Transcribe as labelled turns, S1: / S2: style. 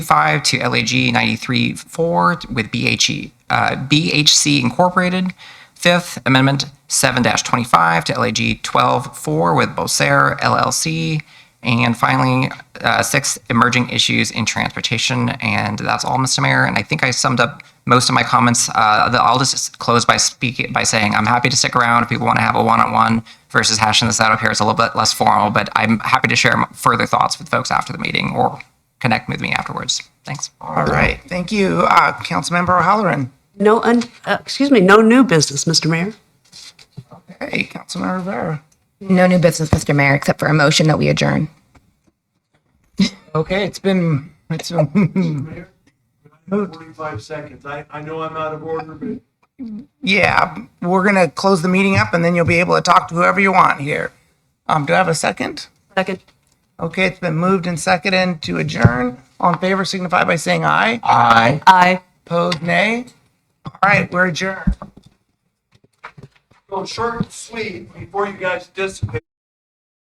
S1: 5 to LAG 93-4 with BHE, uh, BHC Incorporated. Fifth Amendment 7-25 to LAG 12-4 with Bosair LLC. And finally, uh, six emerging issues in transportation. And that's all, Mr. Mayor. And I think I summed up most of my comments. Uh, the- I'll just close by speaking by saying I'm happy to stick around if people want to have a one-on-one versus hashing this out up here. It's a little bit less formal, but I'm happy to share m- further thoughts with folks after the meeting or connect with me afterwards. Thanks.
S2: All right, thank you, uh, Councilmember O'Halloran.
S3: No, un, uh, excuse me, no new business, Mr. Mayor.
S2: Hey, Councilmember Rivera.
S4: No new business, Mr. Mayor, except for a motion that we adjourn.
S2: Okay, it's been, it's been,
S5: Forty-five seconds. I, I know I'm out of order, but
S2: yeah, we're gonna close the meeting up and then you'll be able to talk to whoever you want here. Um, do I have a second?
S3: Second.
S2: Okay, it's been moved and seconded to adjourn. All in favor signify by saying aye.
S3: Aye.
S2: Opposed, nay. All right, we're adjourned.
S5: go short and sweet before you guys dissipate.